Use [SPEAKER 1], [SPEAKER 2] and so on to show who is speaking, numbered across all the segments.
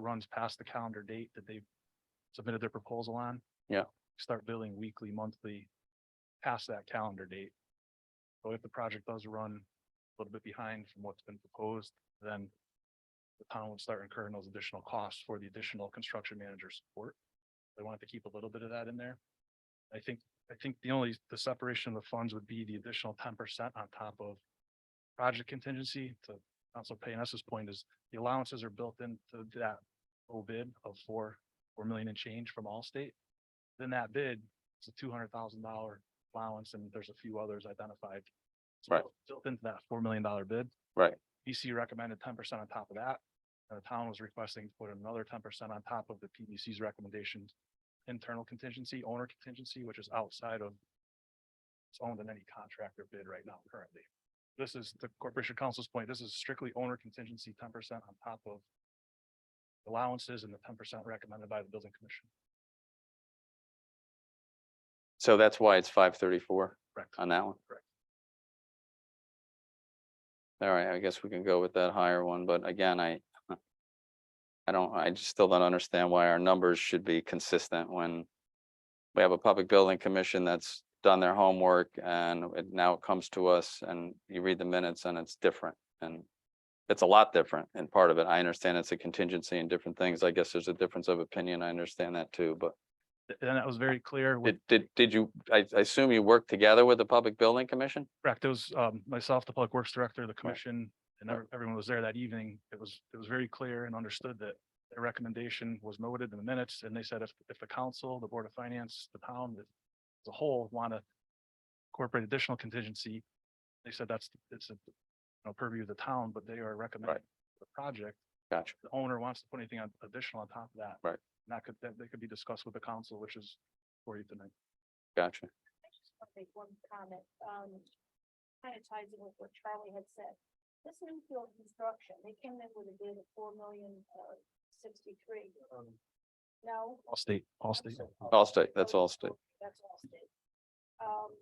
[SPEAKER 1] runs past the calendar date that they submitted their proposal on.
[SPEAKER 2] Yeah.
[SPEAKER 1] Start billing weekly, monthly, past that calendar date. So if the project does run a little bit behind from what's been proposed, then the town would start incurring those additional costs for the additional construction manager support. They wanted to keep a little bit of that in there. I think, I think the only, the separation of the funds would be the additional ten percent on top of project contingency to Council Payness's point is the allowances are built into that low bid of four, four million and change from Allstate. Then that bid, it's a two hundred thousand dollar allowance and there's a few others identified. It's
[SPEAKER 2] Right.
[SPEAKER 1] built- Built into that four million dollar bid.
[SPEAKER 2] Right.
[SPEAKER 1] BC recommended ten percent on top of that. And the town was requesting to put another ten percent on top of the PDC's recommendations. Internal contingency, owner contingency, which is outside of it's owned in any contractor bid right now currently this is the corporation counsel's point, this is strictly owner contingency, ten percent on top of allowances and the ten percent recommended by the building commission,
[SPEAKER 2] So that's why it's five thirty-four
[SPEAKER 1] correct?
[SPEAKER 2] on that one?
[SPEAKER 1] Correct.
[SPEAKER 2] All right, I guess we can go with that higher one, but again, I uh, I don't, I just still don't understand why our numbers should be consistent when we have a public building commission that's done their homework and it now comes to us and you read the minutes and it's different and it's a lot different and part of it, I understand it's a contingency and different things. I guess there's a difference of opinion. I understand that too, but
[SPEAKER 1] And that was very clear with,
[SPEAKER 2] Did, did, did you, I, I assume you worked together with the Public Building Commission?
[SPEAKER 1] correct, it was, um, myself, the public works director, the commission, and
[SPEAKER 2] Right.
[SPEAKER 1] ev- everyone was there that evening. It was, it was very clear and understood that their recommendation was noted in the minutes, and they said if, if the council, the board of finance, the town, the- as a whole, want to incorporate additional contingency, they said that's, it's a, you know, purview of the town, but they are recommending the project.
[SPEAKER 2] Gotcha.
[SPEAKER 1] the owner wants to put anything on additional on top of that.
[SPEAKER 2] Right.
[SPEAKER 1] And that could, that, that could be discussed with the council, which is for you tonight.
[SPEAKER 2] Gotcha.
[SPEAKER 3] I just want to make one comment, um, kind of ties in with what Charlie had said. This Newfield construction, they came in with a bid of four million, uh, sixty-three. No? Oh,
[SPEAKER 1] All state, all state.
[SPEAKER 2] Allstate, that's Allstate.
[SPEAKER 3] That's Allstate. Um,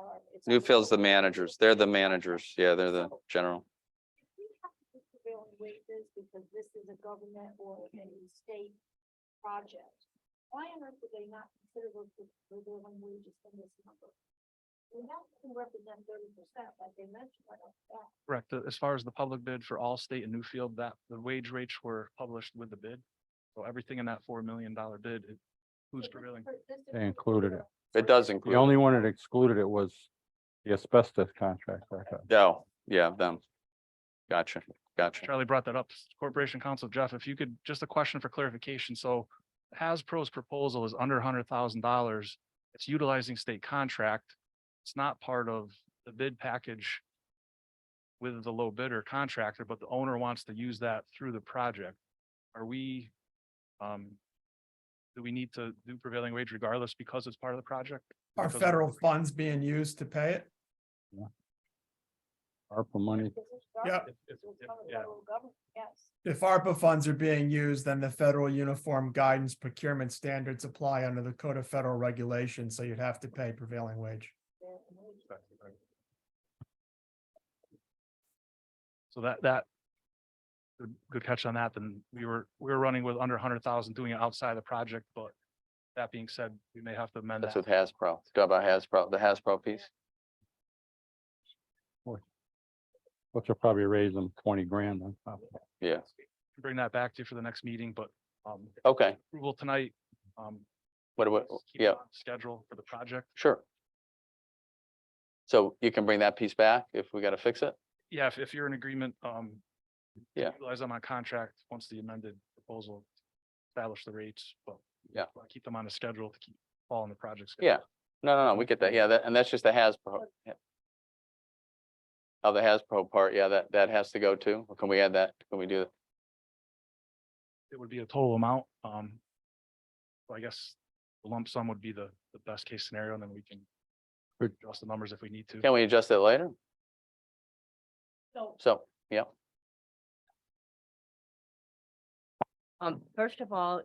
[SPEAKER 3] uh, it's.
[SPEAKER 2] Newfield's the managers. They're the managers. Yeah, they're the general.
[SPEAKER 3] We have to put prevailing wages because this is a government or a state project. Why on earth would they not consider those pre- prevailing wages in this number? We have to represent thirty percent, like they mentioned, right off the bat.
[SPEAKER 1] Correct. Uh, As far as the public bid for all state and Newfield, that, the wage rates were published with the bid. So everything in that four million dollar bid it includes
[SPEAKER 3] So this
[SPEAKER 1] prevailing.
[SPEAKER 3] per- this is
[SPEAKER 4] They included it.
[SPEAKER 3] prevailing.
[SPEAKER 2] It does
[SPEAKER 4] The
[SPEAKER 2] include,
[SPEAKER 4] only one that excluded it was the asbestos contract, I thought.
[SPEAKER 2] oh, yeah, them. Gotcha, gotcha.
[SPEAKER 1] Charlie brought that up. Corporation Counsel Jeff, if you could, just a question for clarification. So Hasbro's proposal is under hundred thousand dollars. It's utilizing state contract. It's not part of the bid package with the low bidder contractor, but the owner wants to use that through the project. Are we, um, do we need to do prevailing wage regardless because it's part of the project?
[SPEAKER 5] Are
[SPEAKER 1] Because-
[SPEAKER 5] federal funds being used to pay it?
[SPEAKER 4] ARPA money.
[SPEAKER 3] This is
[SPEAKER 5] Yeah.
[SPEAKER 3] government.
[SPEAKER 1] If- if-
[SPEAKER 3] This is
[SPEAKER 1] if-
[SPEAKER 3] government,
[SPEAKER 1] yeah.
[SPEAKER 3] federal government, Yes.
[SPEAKER 5] If ARPA funds are being used, then the federal uniform guidance procurement standards apply under the Code of Federal Regulations, so you'd have to pay prevailing wage.
[SPEAKER 3] prevailing wages.
[SPEAKER 1] So that, that, good, good catch on that. Then we were, we were running with under hundred thousand, doing it outside the project, but that being said, we may have to amend
[SPEAKER 2] That's
[SPEAKER 1] that.
[SPEAKER 2] with Hasbro. It's got about Hasbro, the Hasbro piece.
[SPEAKER 4] Which will probably raise them twenty grand on top. of that.
[SPEAKER 2] Yeah,
[SPEAKER 1] uh, Bring that back to you for the next meeting, but, um,
[SPEAKER 2] okay.
[SPEAKER 1] approval tonight, um.
[SPEAKER 2] What, what,
[SPEAKER 1] let's keep it
[SPEAKER 2] yeah,
[SPEAKER 1] on Schedule for the project.
[SPEAKER 2] sure. So you can bring that piece back if we gotta fix it?
[SPEAKER 1] Yeah, if, if you're in agreement, um. to
[SPEAKER 2] Yeah.
[SPEAKER 1] Utilize on my contract, once the amended proposal establish the rates, but.
[SPEAKER 2] Yeah.
[SPEAKER 1] wanna Keep them on a schedule to keep following the project. schedule.
[SPEAKER 2] Yeah. No, no, no, we get that. Yeah, that, and that's just the Hasbro. yeah. Of the Hasbro part, yeah, that, that has to go too. Can we add that? Can we do that?
[SPEAKER 1] it would be a total amount, um. so I guess the lump sum would be the, the best case scenario, and then we can
[SPEAKER 4] Good.
[SPEAKER 1] adjust the numbers if we need to.
[SPEAKER 2] Can we adjust it later?
[SPEAKER 3] So
[SPEAKER 2] So, yeah,
[SPEAKER 6] Um, first of all,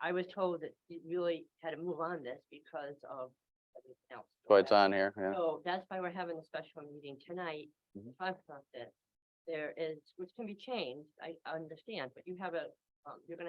[SPEAKER 6] I was told that you really had to move on this because of everything else.
[SPEAKER 2] so it's on here, yeah.
[SPEAKER 6] So that's why we're having a special meeting tonight to
[SPEAKER 2] Mhm.
[SPEAKER 6] talk about this. There is, which can be changed, I understand, but you have a, um, you're gonna